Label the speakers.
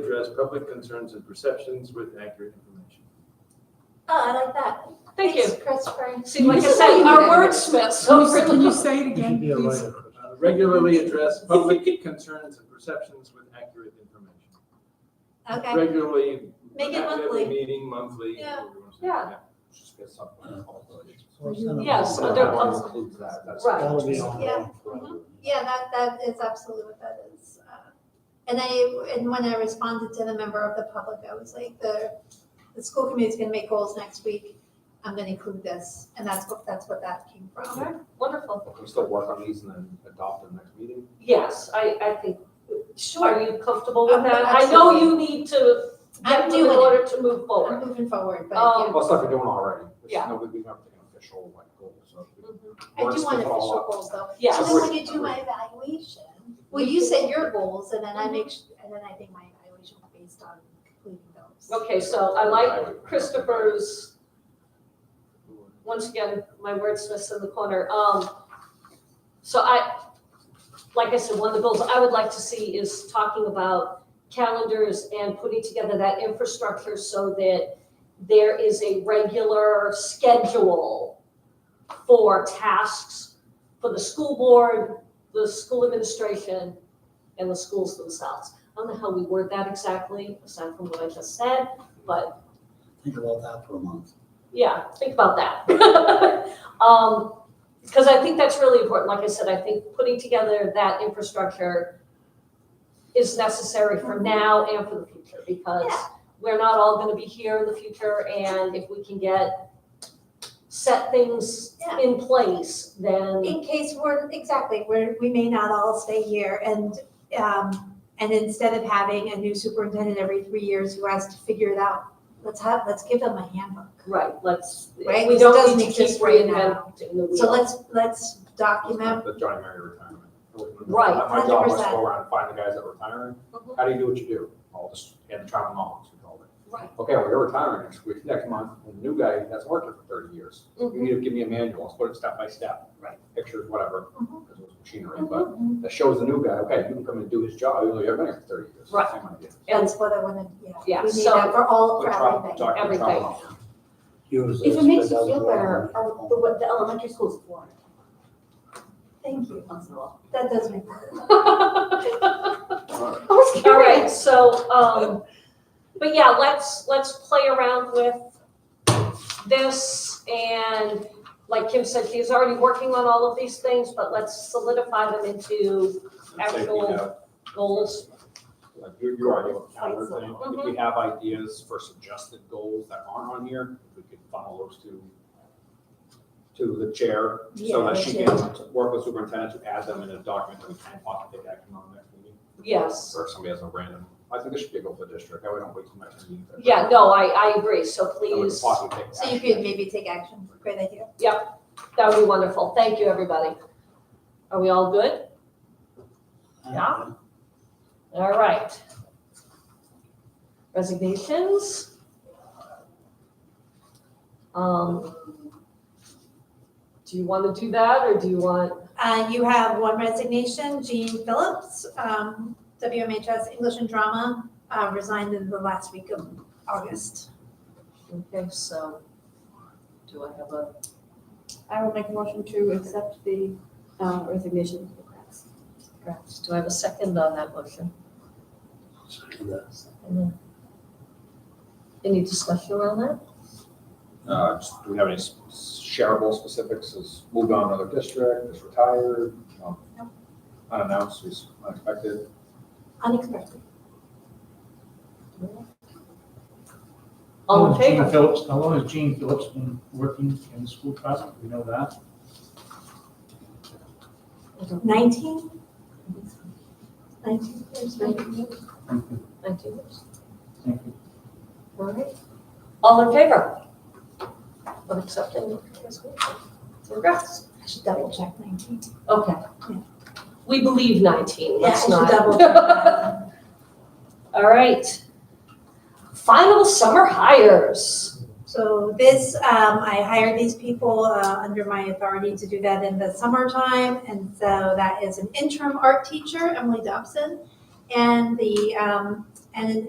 Speaker 1: address public concerns and perceptions with accurate information.
Speaker 2: Oh, I like that.
Speaker 3: Thank you.
Speaker 2: Thanks, Christopher.
Speaker 3: See, like I said, our wordsmiths, so
Speaker 4: Can you
Speaker 3: really-
Speaker 4: say it again, please?
Speaker 1: Uh, Regularly address public concerns and perceptions with accurate information.
Speaker 2: Okay,
Speaker 1: Regularly.
Speaker 2: Make it
Speaker 1: at every
Speaker 2: monthly.
Speaker 1: Meeting monthly.
Speaker 2: Yeah.
Speaker 1: whatever you wanna say.
Speaker 3: Yeah.
Speaker 5: Just get something called the.
Speaker 3: Yes,
Speaker 5: So
Speaker 3: there
Speaker 5: that
Speaker 3: was-
Speaker 5: includes that, that's-
Speaker 3: Right.
Speaker 6: That would be on.
Speaker 2: Yeah.
Speaker 5: Mm-hmm.
Speaker 2: yeah, that, that is absolutely what that is. Uh, And I, and when I responded to the member of the public, I was like, the, the school committee's gonna make goals next week. I'm gonna include this, and that's what, that's what that came from.
Speaker 3: Alright, Wonderful.
Speaker 5: Can we still work on these and then adopt in the next meeting?
Speaker 3: Yes, I, I think, are you comfortable with
Speaker 2: Okay,
Speaker 3: that? I know
Speaker 2: absolutely.
Speaker 3: you need to
Speaker 2: I'm
Speaker 3: get them in
Speaker 2: doing it.
Speaker 3: order to move
Speaker 2: I'm
Speaker 3: forward.
Speaker 2: moving forward, but
Speaker 3: Um,
Speaker 2: yeah.
Speaker 5: Well, stuff you're doing already. It's
Speaker 3: Yeah.
Speaker 5: No, we- we've never taken official like goal, so. we-
Speaker 3: Mhm.
Speaker 2: Mm-hmm. I do want
Speaker 5: wordsmith it all
Speaker 2: official
Speaker 5: up.
Speaker 2: goals though.
Speaker 3: Yes.
Speaker 2: So then when you do my evaluation, well, you set your goals and
Speaker 3: Mm-hmm.
Speaker 2: then I make, su- and then I think my evaluation will be based on completing those.
Speaker 3: Okay, so I like Christopher's, once again, my wordsmith's in the corner. Um, so I, like I said, one of the goals I would like to see is talking about calendars and putting together that infrastructure so that there is a regular schedule for tasks for the school board, the school administration, and the schools themselves. I don't know how we word that exactly, aside from what I just said.
Speaker 6: Think about that for a month.
Speaker 3: Yeah, think about that. Um, because I think that's really important. Like I said, I think putting together that infrastructure is necessary for now and for the future because
Speaker 2: Yeah.
Speaker 3: we're not all gonna be here in the future and if we can get set things
Speaker 2: Yeah.
Speaker 3: in place, then,
Speaker 2: In case we're, exactly, we're, we may not all stay here and, um, and instead of having a new superintendent every three years who has to figure it out, let's have, let's give them a handbook.
Speaker 3: right, let's,
Speaker 2: Right,
Speaker 3: we
Speaker 2: this
Speaker 3: don't
Speaker 2: doesn't
Speaker 3: need to keep
Speaker 2: exist right now.
Speaker 3: reinventing the wheel.
Speaker 2: So let's, let's document,
Speaker 5: The Johnny Mary retirement.
Speaker 3: Right,
Speaker 5: My job was to
Speaker 2: 100%.
Speaker 5: go around and find the guys that are retiring.
Speaker 3: Mhm.
Speaker 5: How do you do what you do? All this, and trial and knowledge, we call it.
Speaker 3: Right.
Speaker 5: Okay, well, you're retiring next week, next month, and the new guy that's worked here for thirty years. You
Speaker 2: Mm-hmm.
Speaker 3: Mhm.
Speaker 5: need to give me a manual, let's put it step by step.
Speaker 3: Right.
Speaker 5: Pictures, whatever,
Speaker 2: Mhm.
Speaker 5: because it was machinery, but that shows the new guy, okay, you can come and do his job, even though you haven't been here for thirty years.
Speaker 3: Right.
Speaker 5: Same idea.
Speaker 3: And,
Speaker 2: that's what I wanna, yeah.
Speaker 3: Yeah,
Speaker 2: We need
Speaker 3: so-
Speaker 2: that for all,
Speaker 5: But
Speaker 2: for
Speaker 5: trial-
Speaker 2: everything.
Speaker 5: document trial and
Speaker 3: Everything.
Speaker 5: knowledge.
Speaker 6: If
Speaker 7: If it makes you feel better, uh, the, what the elementary school's for,
Speaker 2: Thank you.
Speaker 7: once in a while.
Speaker 2: That does make sense.
Speaker 7: I was
Speaker 3: All right, so, um, but yeah, let's, let's play around with this and like Kim said, she's already working on all of these things, but let's solidify them into
Speaker 5: I'd say we
Speaker 3: Actual-
Speaker 5: have
Speaker 3: goals.
Speaker 5: Like you're, you're right, with the calendar
Speaker 7: Fights
Speaker 5: thing. If we have ideas for suggested goals that aren't on here, if we could funnel those to, to the chair, so
Speaker 2: Yeah,
Speaker 5: that she
Speaker 2: the
Speaker 5: can work with superintendent to add them in a document that we can possibly take action on next meeting.
Speaker 3: Yes.
Speaker 5: Or if somebody has a random, I think this should be a goal for the district, that way don't wait till next meeting.
Speaker 3: Yeah, no, I, I agree, so
Speaker 5: That we could
Speaker 3: please,
Speaker 5: possibly take
Speaker 2: So you
Speaker 5: action.
Speaker 2: could maybe take action, great idea.
Speaker 3: that would be wonderful. Thank you, everybody. Are we all good? Yeah. All right. Resignations. Um, do you want to do that or do you want,
Speaker 2: Uh, you have one resignation, Jean Phillips, um, WMHS English and Drama, uh, resigned in the last week of August.
Speaker 3: okay, so do I have a,
Speaker 7: I would make a motion to accept the uh, resignation of the class.
Speaker 3: perhaps, do I have a second on that motion? Any discussion around that?
Speaker 5: Uh, just- do we have any s- shareable specifics, is moved on to another district, is retired, um,
Speaker 2: No.
Speaker 5: unannounced, is unexpected?
Speaker 2: Unexpected.
Speaker 3: All in
Speaker 4: Gene
Speaker 3: favor?
Speaker 4: Phillips, how long has Gene Phillips been working in the school department? We know that.
Speaker 2: Nineteen? Nineteen years, nineteen.
Speaker 4: Thank you.
Speaker 3: Nineteen years.
Speaker 4: Thank you.
Speaker 3: All right. All in favor? Of accepting the resignation? Congrats.
Speaker 2: I should double check nineteen.
Speaker 3: Okay. We believe 19,
Speaker 2: Yeah, I
Speaker 3: let's
Speaker 2: should
Speaker 3: not.
Speaker 2: double check.
Speaker 3: All right. Final summer hires.
Speaker 2: So this, um, I hire these people, uh, under my authority to do that in the summertime. And so that is an interim art teacher, Emily Dobson, and the, um, and an